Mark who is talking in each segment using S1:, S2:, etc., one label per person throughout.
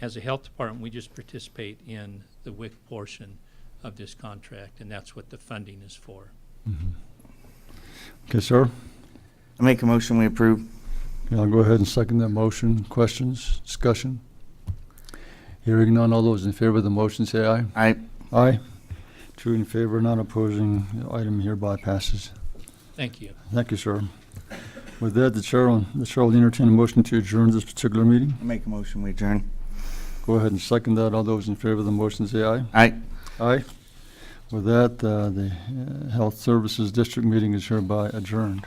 S1: as a health department, we just participate in the WIC portion of this contract, and that's what the funding is for.
S2: Okay, sir.
S3: I make a motion, we approve.
S2: Yeah, I'll go ahead and second that motion. Questions, discussion? Hearing none, all those in favor of the motion say aye.
S3: Aye.
S2: Aye. Two in favor, not opposing. The Item hereby passes.
S1: Thank you.
S2: Thank you, sir. With that, the chair, will- the chair will entertain a motion to adjourn this particular meeting.
S3: I make a motion, we adjourn.
S2: Go ahead and second that. All those in favor of the motion say aye.
S3: Aye.
S2: Aye. With that, uh, the uh, Health Services District meeting is hereby adjourned.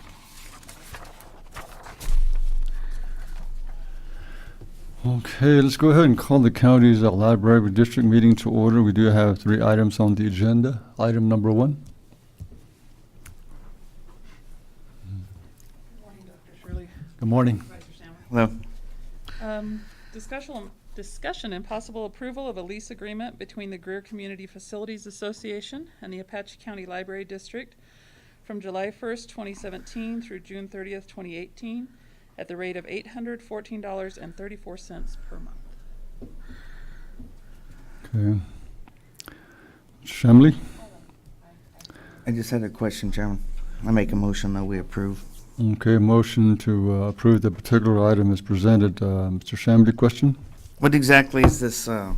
S2: Okay, let's go ahead and call the county's uh, library district meeting to order. We do have three items on the agenda. Item number one.
S4: Morning, Dr. Shirley.
S2: Good morning.
S4: Supervisor Sammer.
S3: Hello.
S4: Um, Discussion, discussion and possible approval of a lease agreement between the Greer Community Facilities Association and the Apache County Library District from July first, twenty seventeen through June thirtieth, twenty eighteen, at the rate of eight hundred fourteen dollars and thirty-four cents per month.
S2: Okay. Shamley?
S3: I just had a question, Chairman. I make a motion that we approve.
S2: Okay, motion to uh, approve the particular item is presented. Uh, Mr. Shamley, question?
S3: What exactly is this, uh,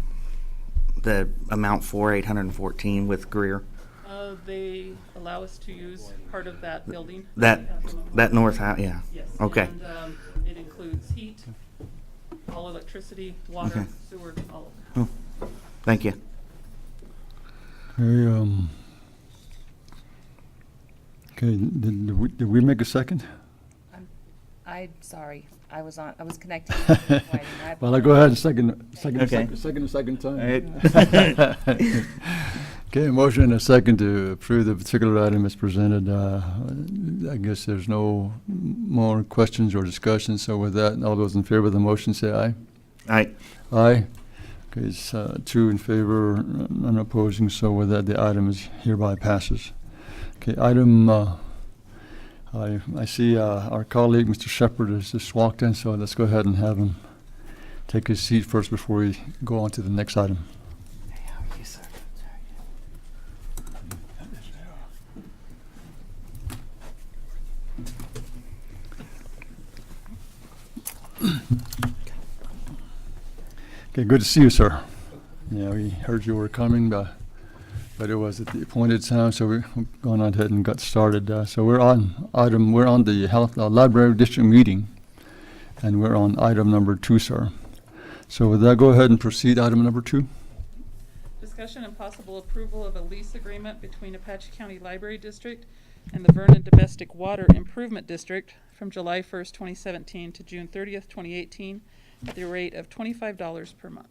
S3: the amount for eight hundred and fourteen with Greer?
S4: Uh, They allow us to use part of that building.
S3: That, that north house, yeah.
S4: Yes.
S3: Okay.
S4: And um, it includes heat, all electricity, water,
S3: Okay.
S4: sewer, all of that.
S3: Thank you.
S2: Okay, um, okay, did, did we, did we make a second?
S5: I, sorry, I was on, I was connecting. to the recording. I
S2: Well, I go ahead and second, second,
S3: Okay.
S2: second, second, second time.
S3: Alright.
S2: Okay, motion and a second to approve the particular item as presented. Uh, I guess there's no more questions or discussion, so with that, all those in favor of the motion say aye.
S3: Aye.
S2: Aye. Okay, it's, uh, two in favor, n- none opposing, so with that, the item is hereby passes. Okay, item, uh, I, I see, uh, our colleague, Mr. Shepherd, has just walked in, so let's go ahead and have him take his seat first before we go on to the next item. Okay, good to see you, sir. Yeah, we heard you were coming, but, but it was at the appointed time, so we're going on ahead and got started. Uh, So we're on item, we're on the health, uh, library district meeting, and we're on item number two, sir. So with that, go ahead and proceed, item number two.
S4: Discussion and possible approval of a lease agreement between Apache County Library District and the Vernon Domestic Water Improvement District from July first, twenty seventeen to June thirtieth, twenty eighteen, at the rate of twenty-five dollars per month.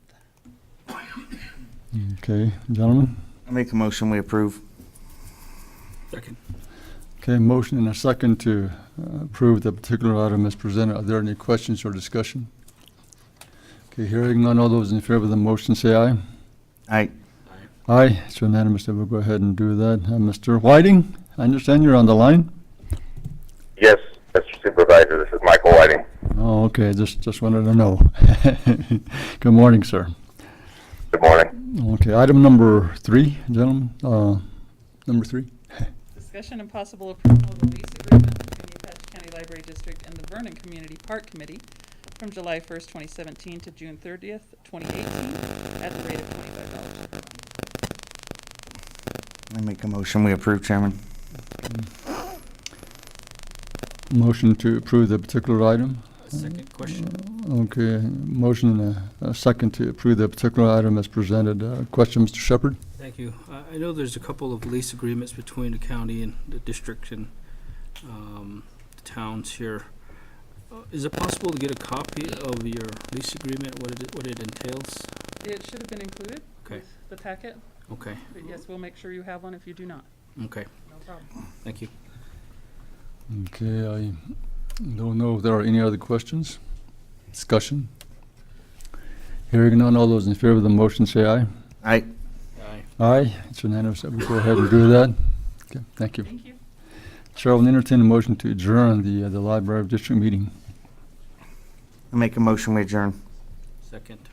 S2: Okay, gentlemen?
S3: I make a motion, we approve.
S2: Okay, motion and a second to uh, approve the particular item as presented. Are there any questions or discussion? Okay, hearing none, all those in favor of the motion say aye.
S3: Aye.
S2: Aye, it's unanimous that we'll go ahead and do that. Uh, Mr. Whiting, I understand you're on the line?
S6: Yes, Mr. Supervisor, this is Michael Whiting.
S2: Oh, okay, just, just wanted to know. Good morning, sir.
S6: Good morning.
S2: Okay, item number three, gentlemen, uh, number three.
S4: Discussion and possible approval of a lease agreement between the Apache County Library District and the Vernon Community Park Committee from July first, twenty seventeen to June thirtieth, twenty eighteen, at the rate of twenty-five dollars per month.
S3: I make a motion, we approve, Chairman.
S2: Motion to approve the particular item.
S7: Second question.
S2: Okay, motion and a, a second to approve the particular item as presented. Uh, question, Mr. Shepherd?
S7: Thank you. I, I know there's a couple of lease agreements between the county and the district and, um, the towns here. Uh, Is it possible to get a copy of your lease agreement, what it, what it entails?
S4: It should have been included
S7: Okay.
S4: with the packet,
S7: Okay,
S4: but yes, we'll make sure you have one if you do not.
S7: okay,
S4: No problem.
S7: thank you.
S2: Okay, I don't know if there are any other questions, discussion. Hearing none, all those in favor of the motion say aye.
S3: Aye.
S7: Aye.
S2: Aye, it's unanimous that we go ahead and do that. Okay, thank you.
S4: Thank you.
S2: Chair will entertain a motion to adjourn the, uh, the Library of District meeting.
S3: I make a motion, we adjourn.
S7: Second.